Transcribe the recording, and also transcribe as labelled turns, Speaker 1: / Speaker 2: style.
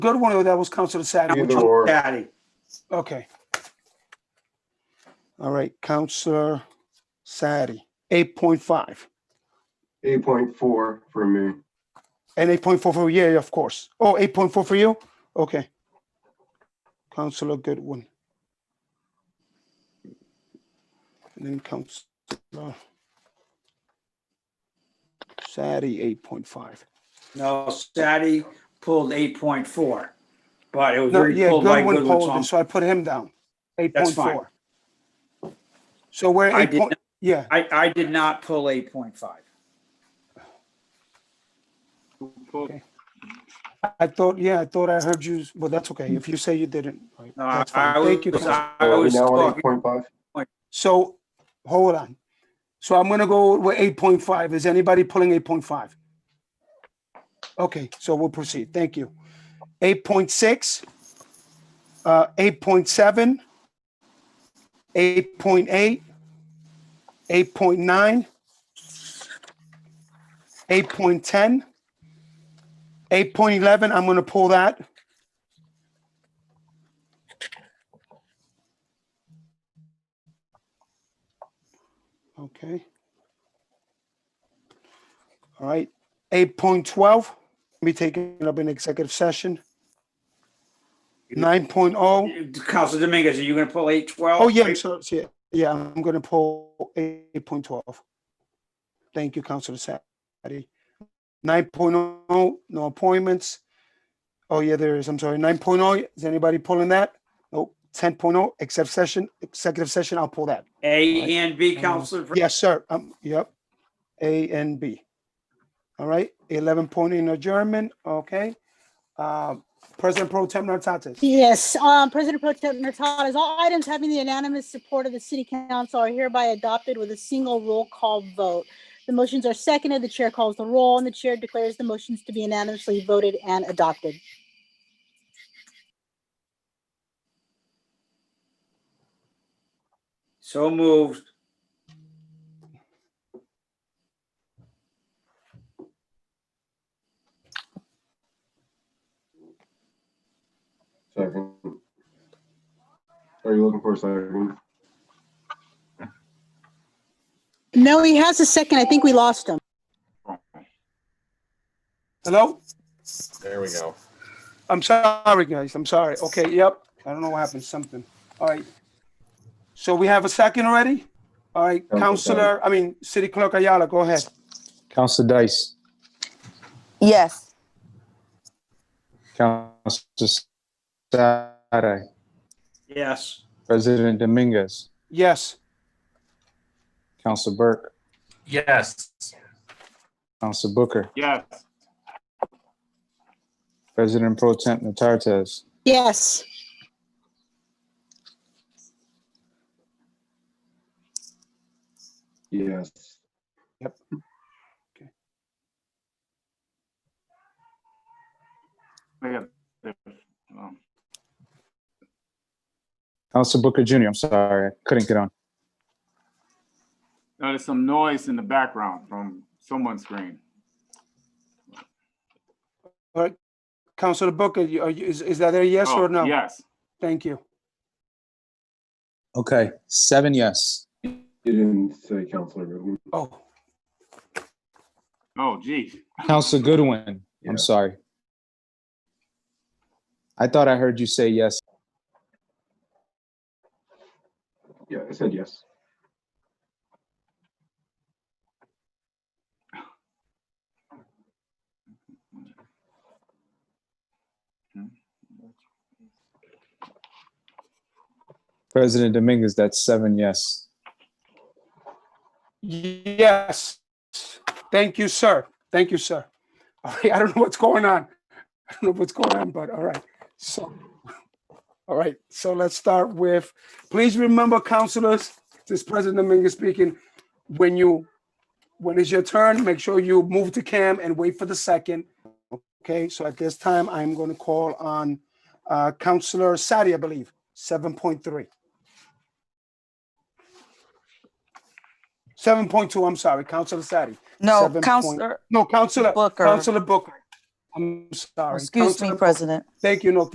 Speaker 1: good one or that was Counselor Sadi? Which
Speaker 2: Either
Speaker 1: one?
Speaker 2: or.
Speaker 3: Patty,
Speaker 1: Okay. All right, Counselor Sadi, eight point five
Speaker 2: Eight point four for me.
Speaker 1: and eight point four for yeah, of course. Oh, 8.4 for you? Okay. Counselor Goodwin. And then Counselor Sadi, eight point five.
Speaker 3: no, Sadi pulled eight point four, but it was
Speaker 1: No,
Speaker 3: very
Speaker 1: yeah,
Speaker 3: pulled by
Speaker 1: Goodwin
Speaker 3: Goodwin. so
Speaker 1: pulled
Speaker 3: I'm-
Speaker 1: it, so I put him down. Eight point
Speaker 3: That's fine.
Speaker 1: four. So we're
Speaker 3: I
Speaker 1: eight
Speaker 3: did
Speaker 1: point,
Speaker 3: not-
Speaker 1: yeah,
Speaker 3: I, I did not pull eight point five.
Speaker 1: I thought, yeah, I thought I heard you, well, that's okay. If you say you didn't, right,
Speaker 3: No, I
Speaker 1: that's
Speaker 3: I
Speaker 1: fine. Thank you.
Speaker 3: was,
Speaker 1: Council.
Speaker 3: I
Speaker 2: Are we
Speaker 3: was
Speaker 2: now on eight
Speaker 3: talking-
Speaker 2: point five?
Speaker 1: So, hold on. So I'm gonna go with eight point five. Is anybody pulling eight point five? Okay, so we'll proceed. Thank you. Eight point six, uh, eight point seven, eight point eight, eight point nine, eight point ten, eight point eleven, I'm gonna pull that. Okay. All right, eight point twelve, be taken up in executive session. Nine
Speaker 3: Council Dominguez, are you gonna pull eight twelve?
Speaker 1: Oh, yeah, I'm sorry, yeah, yeah, I'm gonna pull eight point twelve. Thank you, Counselor Sadi. Nine oh, no appointments. Oh, yeah, there is, I'm sorry, nine oh, is anybody pulling that? Nope, ten except session, executive session, I'll pull that.
Speaker 3: A and B, Council.
Speaker 1: Yes, sir, um, yep, A and B. All right, eleven point in adjournment, okay. Uh, President Pro Tem Nartatis.
Speaker 4: Yes, um, President Pro Tem Hurtado, as all items having the unanimous support of the city council are hereby adopted with a single roll call vote. The motions are seconded, the chair calls the roll, and the chair declares the motions to be unanimously voted and adopted.
Speaker 3: So moved.
Speaker 2: Second. Are you looking for a second?
Speaker 4: No, he has a second. I think we lost him.
Speaker 1: Hello?
Speaker 5: There we go.
Speaker 1: I'm sorry, guys. I'm sorry. Okay, yep. I don't know what happened, something. All right. So we have a second already? All right,
Speaker 2: Counselor
Speaker 1: Counselor, I mean, City Clerk Ayala, go ahead.
Speaker 6: Counselor Dice,
Speaker 7: Yes.
Speaker 6: Counselor Sade,
Speaker 3: Yes,
Speaker 6: President Dominguez,
Speaker 1: Yes,
Speaker 6: Counselor Burke,
Speaker 5: Yes.
Speaker 6: Counselor Booker,
Speaker 5: Yes.
Speaker 6: President Pro Temp Notartez,
Speaker 4: Yes,
Speaker 2: Yes.
Speaker 6: Counselor Booker Jr., I'm sorry, I couldn't get on.
Speaker 8: Now, There's uh, some noise in the background from someone's screen.
Speaker 1: Counselor Booker, you- are you- is, is that a yes
Speaker 8: Oh,
Speaker 1: or no?
Speaker 8: Yes,
Speaker 1: Thank you.
Speaker 6: Okay, seven yes.
Speaker 2: You didn't say Counselor Goodwin.
Speaker 1: Oh,
Speaker 8: oh gee,
Speaker 6: Counselor Goodwin,
Speaker 2: Yeah.
Speaker 6: I'm sorry. I thought I heard you say yes.
Speaker 2: Yeah, I said yes.
Speaker 6: President Dominguez, that's seven yes.
Speaker 1: yes. Thank you, sir. Thank you, sir. All right, I don't know what's going on. I don't know what's going on, but all right, so. All right, so let's start with, please remember counselors, this is President Dominguez speaking, when you, when it's your turn, make sure you move to cam and wait for the second. Okay, so at this time, I'm going to call on uh, Counselor Sadi, I believe, 7.3. 7.2, I'm sorry, Counselor Sadi.
Speaker 7: No,
Speaker 1: Seven point-
Speaker 7: Counselor
Speaker 1: No, Counselor,
Speaker 7: Booker.
Speaker 1: Counselor Booker.
Speaker 7: I'm sorry.
Speaker 1: Excuse me,
Speaker 7: Councilor-
Speaker 1: President.
Speaker 7: Thank you, no,